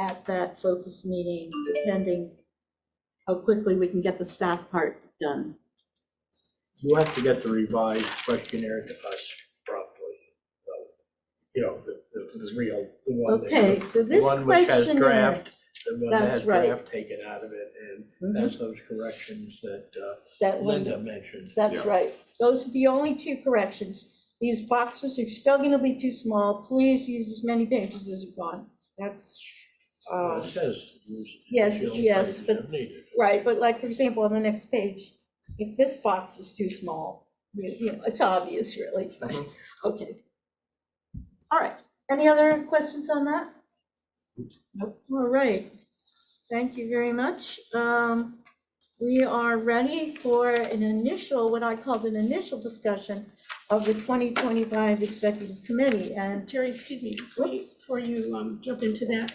at that focus meeting, depending how quickly we can get the staff part done. You have to get the revised questionnaire to us promptly, so, you know, the, the, the real, the one. that- Okay, so this The one which has questionnaire, draft, the one that That's has right. draft taken out of it, and Mhm. that's those corrections that uh, that Linda Linda, mentioned. that's Yeah. right. Those are the only two corrections. These boxes are still gonna be too small. Please use as many pages as you want. That's, Well, uh, It says. use yes, additional yes, pages but- if needed. Right, but like, for example, on the next page, if this box is too small, you you know, it's obvious, really. but- Mm-hmm. Mhm. Okay. All right, any other questions on that? Nope, all right. Thank you very much. Um, We are ready for an initial, what I called an initial discussion of the 2025 Executive Committee, and Terry, excuse me, before you, Whoops. before you um, jump into that,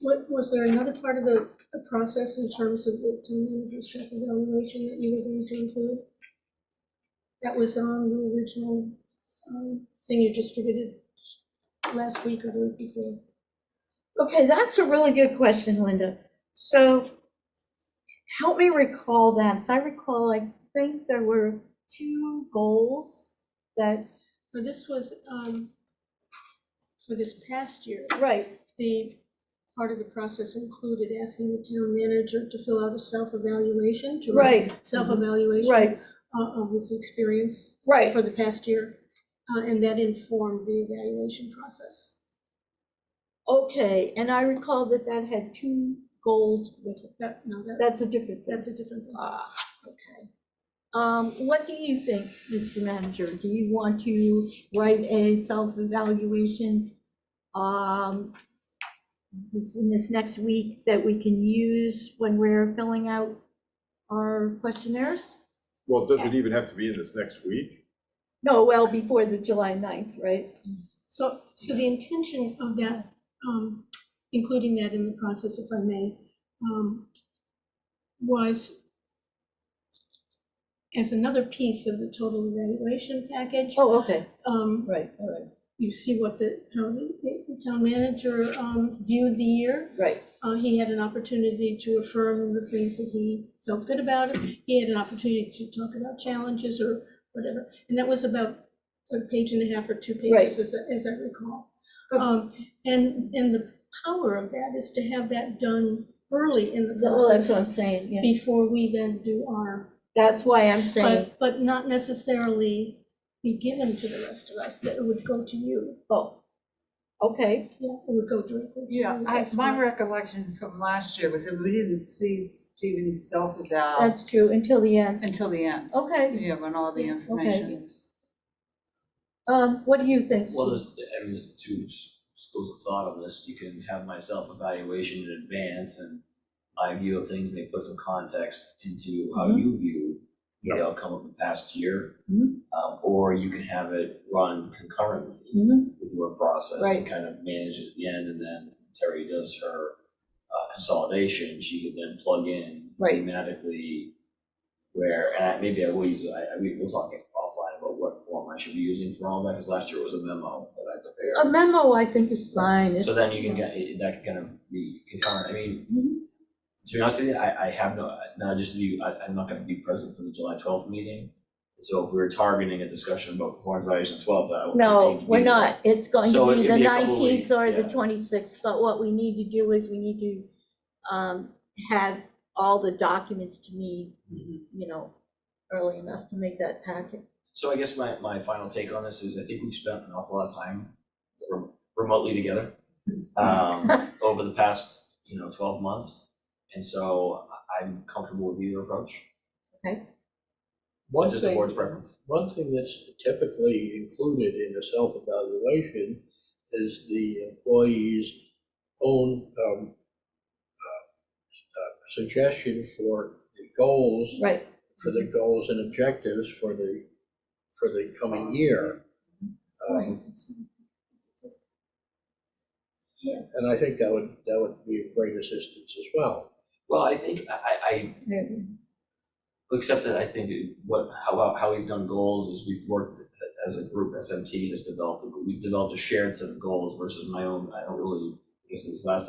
what, was there another part of the, the process in terms of the community self evaluation that you were going to include? That was on the original um, thing you distributed last week or the week before? Okay, that's a really good question, Linda. So help me recall that. As I recall, I think there were two goals that, But this was, um, for this past year, right, the part of the process included asking the town manager to fill out a self-evaluation, to write right, self-evaluation. Right. uh, Of his experience right. for the past year, uh, and that informed the evaluation process. Okay, and I recall that that had two goals with it. That, no, that, That's a different thing. that's a different thing. Ah, okay. Um, what do you think, Mr. Manager? Do you want to write a self-evaluation? Um, this, in this next week that we can use when we're filling out our questionnaires? Well, does it even have to be in this next week? No, well, before the July 9th, right? So, so the intention of that, um, including that in the process, if I may, um, was as another piece of the total evaluation package. Oh, okay, Um, right, all you see what the, how the the town manager, um, viewed the year. right, right. Uh, he had an opportunity to affirm the things that he felt good about. He had an opportunity to talk about challenges or whatever. And that was about a page and a half or two Right. pages, as, I- as I recall. Um, and, and the power of that is to have that done early in the Well, that's what I'm process saying, yeah. before we then do our, That's why I'm saying, but, but not necessarily be given to the rest of us, that it would go to you. oh, okay, Yeah, it would go directly to you. Yeah, I, That's my what- recollection from last year was that we didn't see Stephen's self-eval that's true, until the end. until the end. Okay, Yeah, when all the Okay. information is. um, what do you think? Well, Steve? there's, I mean, there's two s- schools of thought on this, you can have my self-evaluation in advance and my view of things may put some context into how Mhm. you view the outcome of the past year. Mhm. Um, or you can have it run concurrently Mhm. with your process Right. and kind of manage it at the end, and then Terry does her uh, consolidation, she could then plug in Right. thematically where, and I- maybe I will use, I, I, we- we'll talk offline about what form I should be using for all that, because last year it was a memo that I A prepared. memo, I think, is fine. It's- So then you can get, it- that can kind of be concurrent, I mean, Mhm. to be honest with you, I, I have no, not just you, I, I'm not gonna be present for the July twelfth meeting. So if we were targeting a discussion about performance evaluation twelfth, I would. No, we're not. It's going So to be it'd the be a couple nineteenth or weeks, the yeah. twenty-sixth, but what we need to do is we need to um, have all the documents to me, Mm-hmm. you know, early enough to make that packet. So I guess my, my final take on this is I think we've spent an awful lot of time rem- remotely together um, over the past, you know, twelve months. And so I- I'm comfortable with either approach. One This is the thing- board's preference. One thing that's typically included in a self-evaluation is the employee's own um, uh, uh, suggestion for the goals, Right, for the goals and objectives for the, for the coming year. Um, And I think that would, that would be of great assistance as well. Well, I think I, I, I- Yeah. except that I think it- what, how, how we've done goals is we've worked as a group, SMT has developed, we've developed a shared set of goals versus my own, I don't really, I guess this is last time